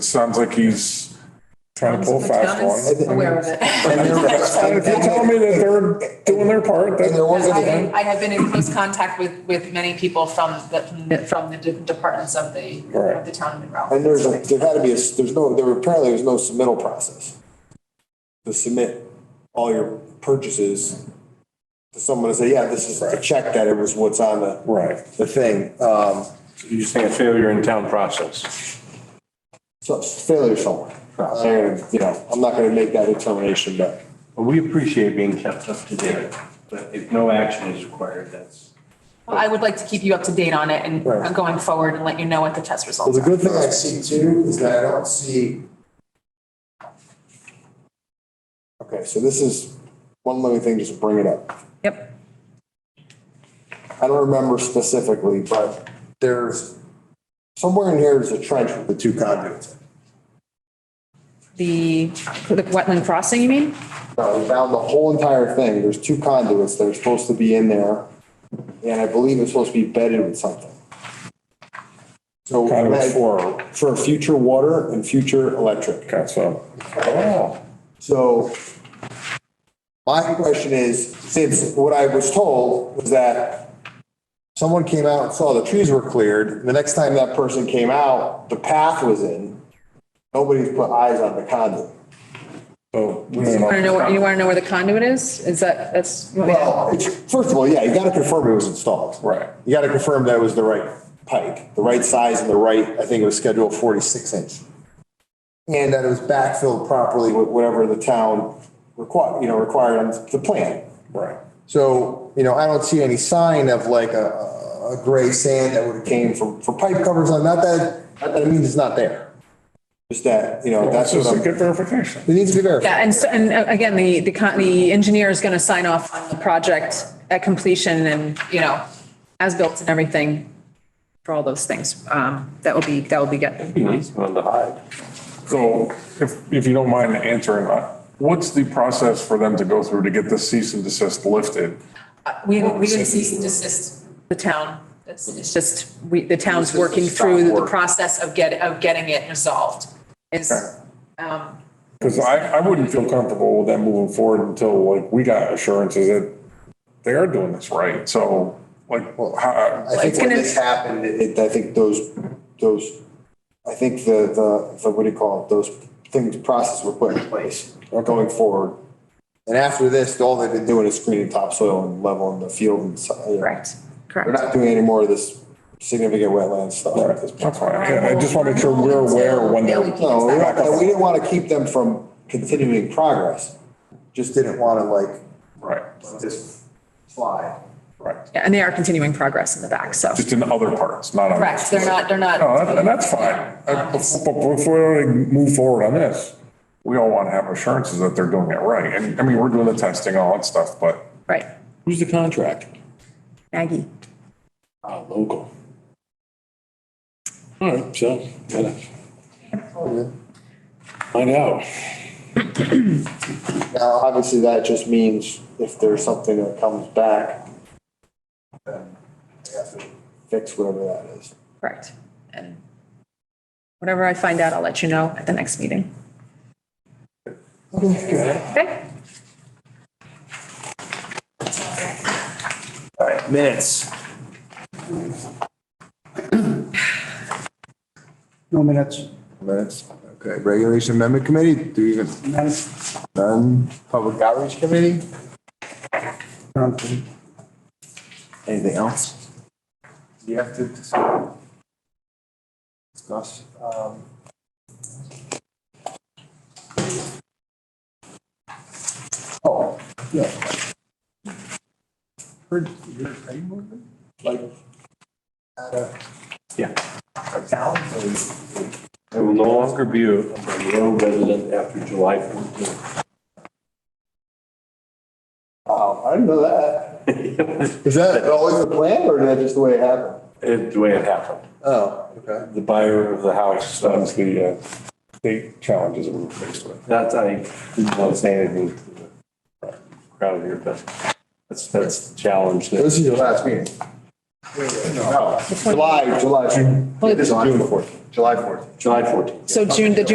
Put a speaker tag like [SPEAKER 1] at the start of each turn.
[SPEAKER 1] sounds like he's trying to pull a fast one.
[SPEAKER 2] is aware of it.
[SPEAKER 1] And if you tell me that they're doing their part, then.
[SPEAKER 3] there was
[SPEAKER 2] I I have been in close contact with, with many people from the, from the different departments of the, of the town of Monroe.
[SPEAKER 3] And there's, a- there had to be, a s- there's no, there apparently there's no submittal process. To submit all your purchases to someone and say, yeah, this is the check that it was what's on the.
[SPEAKER 1] Right.
[SPEAKER 3] The thing, um,
[SPEAKER 4] You just think a failure in town process.
[SPEAKER 3] so it's failure somewhere. And, you know, I'm not gonna make that determination, but
[SPEAKER 4] But we appreciate being kept up to date, but if no action is required, that's.
[SPEAKER 2] Well, I would like to keep you up to date on it and
[SPEAKER 3] Right.
[SPEAKER 2] going forward and let you know what the test results
[SPEAKER 3] Well, the
[SPEAKER 2] are.
[SPEAKER 3] good thing I see too is that I don't see. Okay, so this is one living thing, just bring it up.
[SPEAKER 2] Yep.
[SPEAKER 3] I don't remember specifically, but there's, somewhere in here is a trench with the two conduits.
[SPEAKER 2] The, the wetland crossing, you mean?
[SPEAKER 3] No, Uh, we found the whole entire thing. There's two conduits that are supposed to be in there. And I believe it's supposed to be bedded with something. So
[SPEAKER 1] Kind of for,
[SPEAKER 3] for future water and future electric.
[SPEAKER 1] okay, so. Oh,
[SPEAKER 3] So my question is, since what I was told was that someone came out and saw the trees were cleared, the next time that person came out, the path was in. Nobody's put eyes on the conduit.
[SPEAKER 1] so we don't know.
[SPEAKER 2] Want to know, you want to know where the conduit is? Is that, that's, you want me to-
[SPEAKER 3] Well, it's, first of all, yeah, you gotta confirm it was installed.
[SPEAKER 1] Right.
[SPEAKER 3] You gotta confirm that it was the right pipe, the right size and the right, I think it was scheduled forty-six inch. And that it was backfilled properly with whatever the town required, you know, required on the plan.
[SPEAKER 1] Right.
[SPEAKER 3] So, you know, I don't see any sign of like a, a gray sand that would have came from, for pipe covers on, not that, not that it means it's not there. Just that, you know,
[SPEAKER 1] That's
[SPEAKER 3] that's what
[SPEAKER 1] just a
[SPEAKER 3] I'm, it
[SPEAKER 1] good verification.
[SPEAKER 3] needs to be verified.
[SPEAKER 2] Yeah, and so, and uh, again, the, the con, the engineer is going to sign off on the project at completion and, you know, as built and everything for all those things. Um, that will be, that will be good.
[SPEAKER 4] He needs one to hide.
[SPEAKER 1] So if, if you don't mind answering that, what's the process for them to go through to get this cease and desist lifted?
[SPEAKER 2] We, we would cease and desist the town. It's it's just, we, the town's working through the process of get, of getting it resolved is, um,
[SPEAKER 1] Because I, I wouldn't feel comfortable with them moving forward until like we got assurances that they are doing this right. So like, well, how,
[SPEAKER 3] I think
[SPEAKER 2] It's
[SPEAKER 3] when
[SPEAKER 2] gonna-
[SPEAKER 3] this happened, it, I think those, those, I think the, the, the, what do you call it, those things, process were put in place are going forward. And after this, all they've been doing is screening topsoil and leveling the field and, so- you know.
[SPEAKER 2] correct,
[SPEAKER 3] They're
[SPEAKER 2] correct.
[SPEAKER 3] not doing any more of this significant wetland stuff at this point.
[SPEAKER 1] that's fine. Yeah, I just want to make sure we're aware when they're.
[SPEAKER 3] No, we don't- and we didn't want to keep them from continuing progress, just didn't want to like,
[SPEAKER 1] Right,
[SPEAKER 3] let this slide.
[SPEAKER 1] right.
[SPEAKER 2] Yeah, And they are continuing progress in the back, so.
[SPEAKER 1] Just in other parts, not on.
[SPEAKER 2] Correct, they're not, they're not.
[SPEAKER 1] No, that- and that's fine. Uh, bef- But before we move forward on this, we all want to have assurances that they're doing it right. And I mean, we're doing the testing, all that stuff, but
[SPEAKER 2] Right,
[SPEAKER 5] Who's the contract?
[SPEAKER 2] Maggie.
[SPEAKER 5] Ah, local. All right, so, gotta find out.
[SPEAKER 3] Now, obviously, that just means if there's something that comes back, then they have to fix whatever that is.
[SPEAKER 2] Correct. And whatever I find out, I'll let you know at the next meeting. Okay?
[SPEAKER 5] Minutes.
[SPEAKER 6] No minutes.
[SPEAKER 3] Minutes, okay. Regulation Amendment Committee, do you even,
[SPEAKER 6] Minutes.
[SPEAKER 3] none? Public Outreach Committee?
[SPEAKER 6] Okay.
[SPEAKER 3] Anything else? You have to discuss. Discuss. um, Oh, yeah. Heard, you heard any movement? Like, at a.
[SPEAKER 4] Yeah.
[SPEAKER 3] A town, or-
[SPEAKER 4] I will no longer be a Monroe resident after July 14th.
[SPEAKER 3] Oh, I didn't know that. Is that always the plan or is that just the way it happened?
[SPEAKER 4] It's the way it happened.
[SPEAKER 3] Oh, okay.
[SPEAKER 4] The buyer of the house, um,
[SPEAKER 1] that's the uh, state challenges that we're faced with.
[SPEAKER 4] that's, I didn't want to say anything to the crowd here, but that's, that's the challenge. that-
[SPEAKER 3] This is your last meeting. No, July, July, June. This is June fourth.
[SPEAKER 7] July fourth.
[SPEAKER 8] July 14th.
[SPEAKER 3] So June, the June